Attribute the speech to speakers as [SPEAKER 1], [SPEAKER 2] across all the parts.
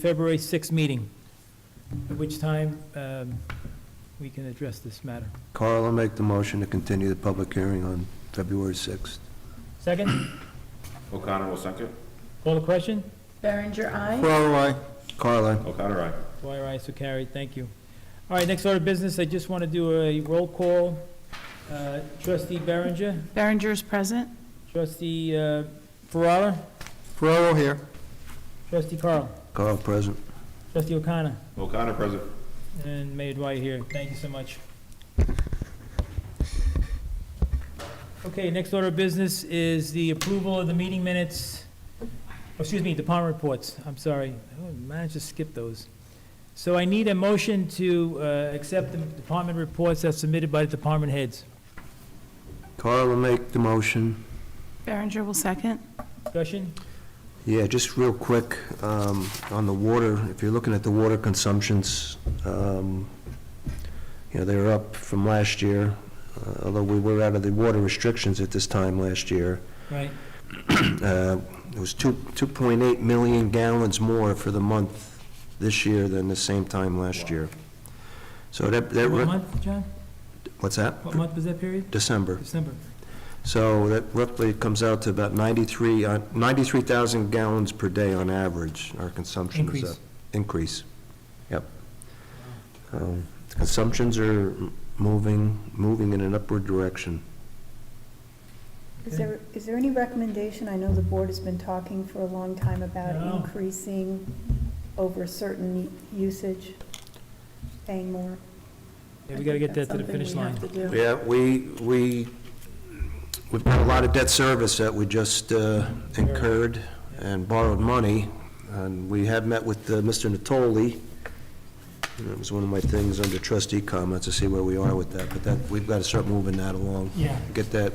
[SPEAKER 1] February 6th meeting, at which time um, we can address this matter.
[SPEAKER 2] Carl will make the motion to continue the public hearing on February 6th.
[SPEAKER 1] Second,
[SPEAKER 3] O'Connor will second.
[SPEAKER 1] call the question?
[SPEAKER 4] Berenger, aye.
[SPEAKER 2] Ferraro, aye. Carl, aye.
[SPEAKER 3] O'Connor, aye.
[SPEAKER 1] Dwyer, aye, so carried, thank you. All right, next order of business, I just want to do a roll call. Uh, Trustee Berenger,
[SPEAKER 4] Berenger is present.
[SPEAKER 1] trustee uh, Ferrara,
[SPEAKER 2] Ferraro here.
[SPEAKER 1] trustee Carl,
[SPEAKER 2] Carl, present.
[SPEAKER 1] trustee O'Connor,
[SPEAKER 3] O'Connor present.
[SPEAKER 1] and Mayor Dwyer here. Thank you so much. Okay, next order of business is the approval of the meeting minutes, Oh, excuse me, department reports, I'm sorry. Oh, I managed to skip those. So I need a motion to uh, accept the department reports as submitted by the department heads.
[SPEAKER 2] Carl will make the motion.
[SPEAKER 4] Berenger will second.
[SPEAKER 1] Discussion?
[SPEAKER 2] Yeah, just real quick, um, on the water, if you're looking at the water consumptions, um, you know, they're up from last year, uh, although we were out of the water restrictions at this time last year.
[SPEAKER 1] Right,
[SPEAKER 2] Uh, It was two 2.8 million gallons more for the month this year than the same time last year. So that, that,
[SPEAKER 1] what
[SPEAKER 2] re-
[SPEAKER 1] month, John?
[SPEAKER 2] what's that?
[SPEAKER 1] What month was that period?
[SPEAKER 2] December.
[SPEAKER 1] December.
[SPEAKER 2] So that roughly comes out to about 93, uh, 93,000 gallons per day on average, our consumption is
[SPEAKER 1] Increase.
[SPEAKER 2] up. Increase. Yep. Um, Consumptions are m- moving, moving in an upward direction.
[SPEAKER 5] Is there, is there any recommendation, I know the board has been talking for a long time about
[SPEAKER 1] No.
[SPEAKER 5] increasing over certain usage, paying more?
[SPEAKER 1] Yeah, we got to get that to the
[SPEAKER 5] Something we
[SPEAKER 1] finish line.
[SPEAKER 5] have to do.
[SPEAKER 2] Yeah, we, we, we've got a lot of debt service that we just uh, incurred and borrowed money, and we have met with uh, Mr. Natoli. And It was one of my things under trustee comments to see where we are with that, but that, we've got to start moving that along.
[SPEAKER 1] Yeah.
[SPEAKER 2] Get that,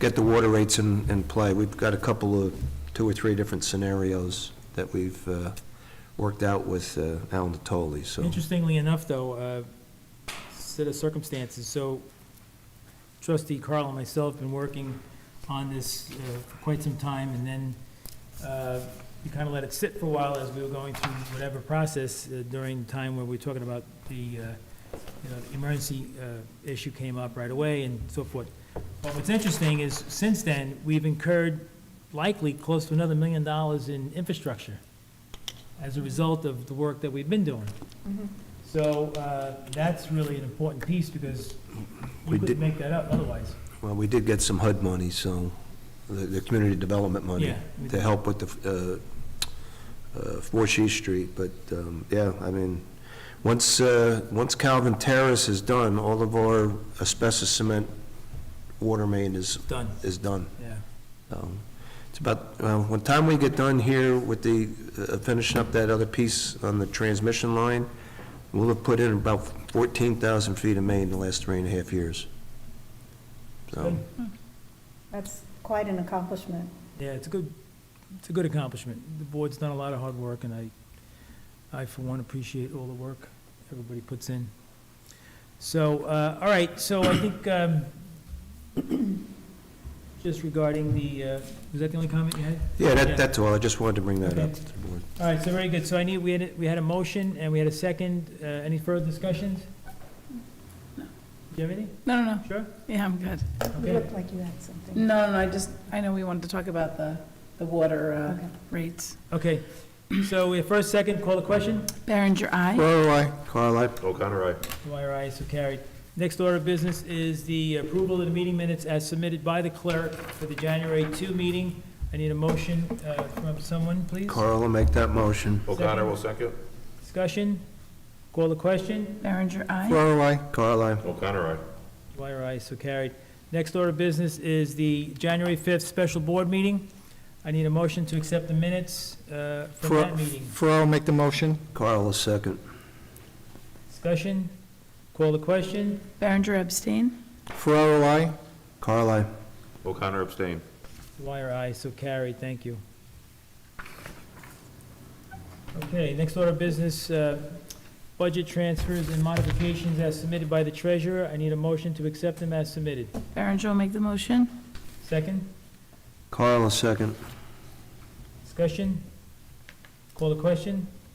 [SPEAKER 2] get the water rates in, in play. We've got a couple of, two or three different scenarios that we've uh, worked out with uh, Al Natoli, so.
[SPEAKER 1] Interestingly enough, though, uh, set of circumstances, so trustee Carl and myself been working on this uh, for quite some time, and then uh, we kind of let it sit for a while as we were going through whatever process uh, during the time where we were talking about the, uh, you know, the emergency uh, issue came up right away and so forth. But what's interesting is, since then, we've incurred likely close to another million dollars in infrastructure as a result of the work that we've been doing. So uh, that's really an important piece because we
[SPEAKER 2] We
[SPEAKER 1] couldn't
[SPEAKER 2] did-
[SPEAKER 1] make that up otherwise.
[SPEAKER 2] Well, we did get some HUD money, so, the, the community development money,
[SPEAKER 1] Yeah, we
[SPEAKER 2] to
[SPEAKER 1] did.
[SPEAKER 2] help with the, uh, uh, 4 She Street, but, um, yeah, I mean, once, uh, once Calvin Terrace is done, all of our asbestos cement water main is,
[SPEAKER 1] Done,
[SPEAKER 2] is done.
[SPEAKER 1] yeah.
[SPEAKER 2] Um, It's about, well, when time we get done here with the, uh, finishing up that other piece on the transmission line, we'll have put in about 14,000 feet of main in the last three and a half years. So, Um,
[SPEAKER 1] Good.
[SPEAKER 5] That's quite an accomplishment.
[SPEAKER 1] Yeah, it's a good, it's a good accomplishment. The board's done a lot of hard work, and I, I for one appreciate all the work everybody puts in. So, uh, all right, so I think, um, just regarding the, uh, was that the only comment you had?
[SPEAKER 2] yeah,
[SPEAKER 1] Yeah.
[SPEAKER 2] that, that's all, I just wanted to bring that up
[SPEAKER 1] Okay.
[SPEAKER 2] to the board.
[SPEAKER 1] All right, so very good. So I need, we had, a- we had a motion, and we had a second. Uh, Any further discussions? Do you have anything?
[SPEAKER 4] No, no, no.
[SPEAKER 1] Sure?
[SPEAKER 4] Yeah, I'm good.
[SPEAKER 5] You
[SPEAKER 1] Okay.
[SPEAKER 5] looked like you had something.
[SPEAKER 4] No, no, I just, I know we wanted to talk about the, the water uh,
[SPEAKER 5] Okay.
[SPEAKER 4] rates.
[SPEAKER 1] Okay, so we have first, second, call the question.
[SPEAKER 4] Berenger, aye.
[SPEAKER 2] Carl, aye. Carl, aye.
[SPEAKER 3] O'Connor, aye.
[SPEAKER 1] Dwyer, aye, so carried. Next order of business is the approval of the meeting minutes as submitted by the clerk for the January 2 meeting. I need a motion uh, from someone, please.
[SPEAKER 2] Carl will make that motion.
[SPEAKER 3] O'Connor will second.
[SPEAKER 1] Discussion, call the question.
[SPEAKER 4] Berenger, aye.
[SPEAKER 2] Carl, aye. Carl, aye.
[SPEAKER 3] O'Connor, aye.
[SPEAKER 1] Dwyer, aye, so carried. Next order of business is the January 5th special board meeting. I need a motion to accept the minutes uh, from that meeting.
[SPEAKER 6] Ferraro make the motion.
[SPEAKER 2] Carl will second.
[SPEAKER 1] Discussion, call the question.
[SPEAKER 4] Berenger abstain.
[SPEAKER 6] Ferraro, I.
[SPEAKER 2] Carl, aye.
[SPEAKER 3] O'Connor abstain.
[SPEAKER 1] Dwyer, aye, so carried, thank you. Okay, next order of business, uh, budget transfers and modifications as submitted by the treasurer. I need a motion to accept them as submitted.
[SPEAKER 4] Berenger will make the motion.
[SPEAKER 1] Second,
[SPEAKER 2] Carl will second.
[SPEAKER 1] discussion? Call the question?